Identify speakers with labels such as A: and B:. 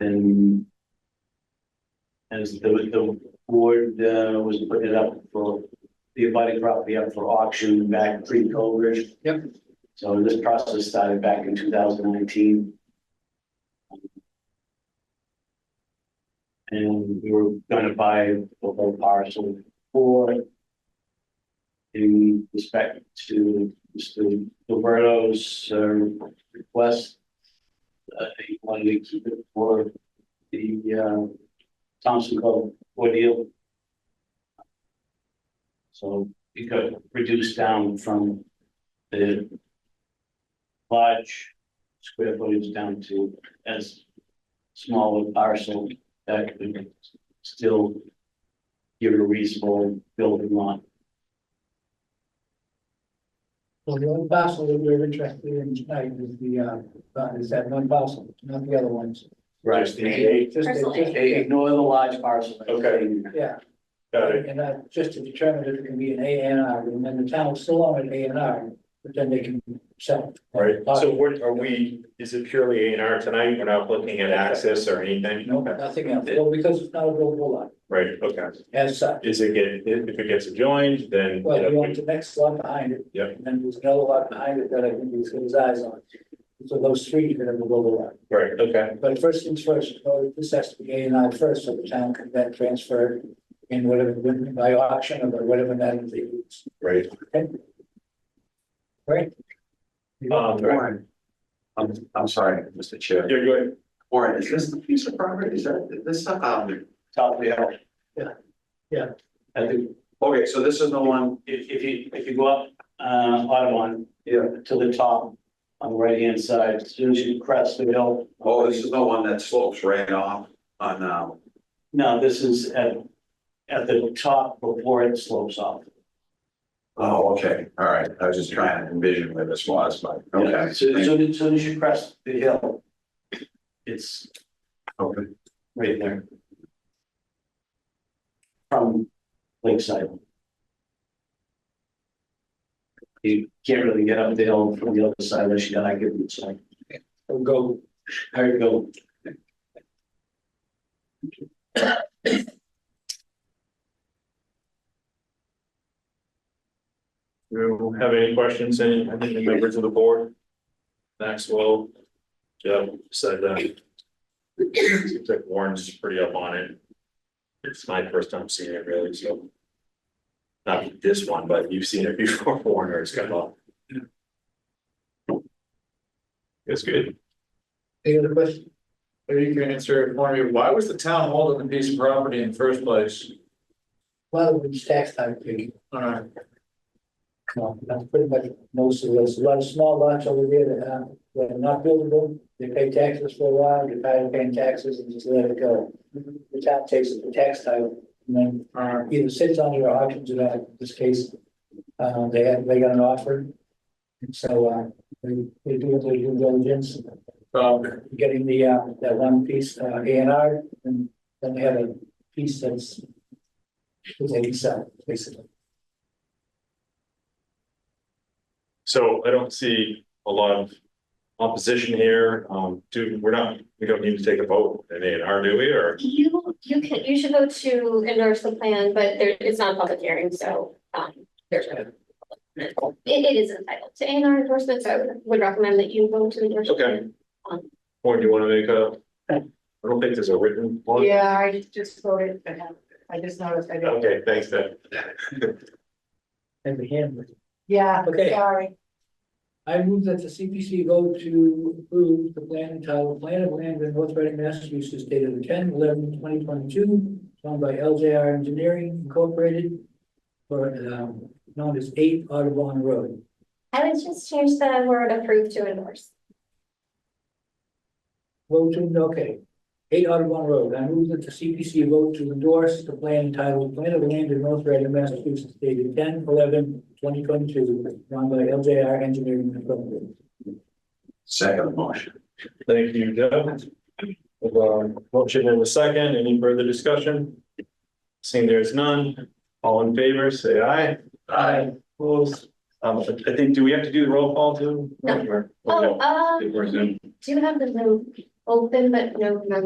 A: And as the, the board, uh, was putting it up for the abiding property up for auction back pre-COVID.
B: Yep.
A: So this process started back in two thousand nineteen. And we were gonna buy the whole parcel for in respect to Mr. Gilberto's uh, request. Uh, he wanted to keep it for the uh, Thompson Cove ordeal. So it got reduced down from the large square footage down to as small a parcel that could still give it a reasonable building lot.
B: So the only parcel that we're interested in tonight is the, uh, that is that one parcel, not the other ones.
A: Right.
C: Just the eight.
B: Just-
C: Parcel
B: just-
A: They ignore the large parcel.
C: Okay.
B: Yeah.
C: Got it.
B: And uh, just to determine if it can be an A and R, and then the town's still on an A and R, but then they can sell. it.
C: Right, so what are we, is it purely A and R tonight? We're not looking at access or anything?
B: No, nothing else, well, because it's not a buildable lot
C: Right, okay.
B: as such.
C: Is it get, if if it gets adjoined, then.
B: Well, you want the next lot behind it.
C: Yep.
B: And then there's another lot behind it that I think he's got his eyes on. So those three are gonna go lot.
C: Right, okay,
B: But first things first, uh, this has to be A and I first, so the town can then transfer in whatever, by auction or by whatever that is. they use.
C: right.
B: Right?
C: Um,
D: Warren, I'm, I'm sorry, Mr. Chair.
C: You're good.
D: Warren, is this the piece of property? Is that, this, um,
A: Top of the hill.
B: Yeah. Yeah.
A: I think
D: okay, so this is the one,
A: if, if you, if you go up, uh, Audubon.
D: Yeah.
A: To the top on the right hand side, as soon as you crest the hill.
D: oh, this is the one that slopes right off on, um,
A: No, this is at, at the top before it slopes off.
D: oh, okay, all right. I was just trying to envision where this was, but,
A: Yeah,
D: okay.
A: So, so as soon as you crest the hill. It's
D: Okay.
A: right there. From Lakeside. You can't really get up the hill from the other side unless you got a good side.
B: Or go,
A: There you go.
C: You have any questions, any, any members of the board? Maxwell, Jeff said that. Seems like Warren's pretty up on it. It's my first time seeing it really, so. Not this one, but you've seen it before, Warren, or it's kind of. It's good.
B: any other question?
E: Maybe you can answer it for me, why was the town holding the piece of property in the first place?
B: Well, it's tax time, please.
E: Alright,
B: No, that's pretty much most of those, a lot of small lots over there that, uh, that are not buildable, they pay taxes for a while, they tired of paying taxes and just let it go. The town takes it, the tax title, and then uh,
E: alright,
B: either sits on your auctions or not, in this case, uh, they had, they got an offer. And so, uh, they, they do their due diligence,
E: um,
B: getting the, uh, that one piece, uh, A and R, and then they have a piece that's they can sell, basically.
C: So I don't see a lot of opposition here. Um, do, we're not, we don't need to take a vote in A and R, do we, or?
F: You, you can, you should vote to endorse the plan, but there, it's not a public hearing, so, um, there's no. It, it is entitled to A and R endorsement, so I would- would recommend that you vote to endorse. the
C: Okay.
F: plan. Um,
C: Or do you want to make a? I don't think there's a written one.
G: Yeah, I just voted, but I just noticed I didn't.
C: Okay, thanks, Then
B: And the handler.
G: Yeah,
B: Okay.
G: sorry.
B: I move that the CPC vote to approve the plan entitled Plan of Land in North Reading, Massachusetts, dated 10 11 2022, owned by LJR Engineering Incorporated for, um, known as Eight Audubon Road.
F: I would just change the word approve to endorse.
B: Vote to, okay, Eight Audubon Road. I move that the CPC vote to endorse the plan entitled Plan of Land in North Reading, Massachusetts, dated 10 11 2022, owned by LJR Engineering Incorporated.
D: Second motion.
C: Thank you, Doug. Um, Motion in a second. Any further discussion? Seeing there's none, all in favor, say aye.
B: Aye.
C: Opposed? Um, I think, do we have to do the roll call too?
F: No.
C: Or- or
F: Oh,
C: no?
F: uh,
C: If we're Zoom.
F: do you have the Zoom open, but no, no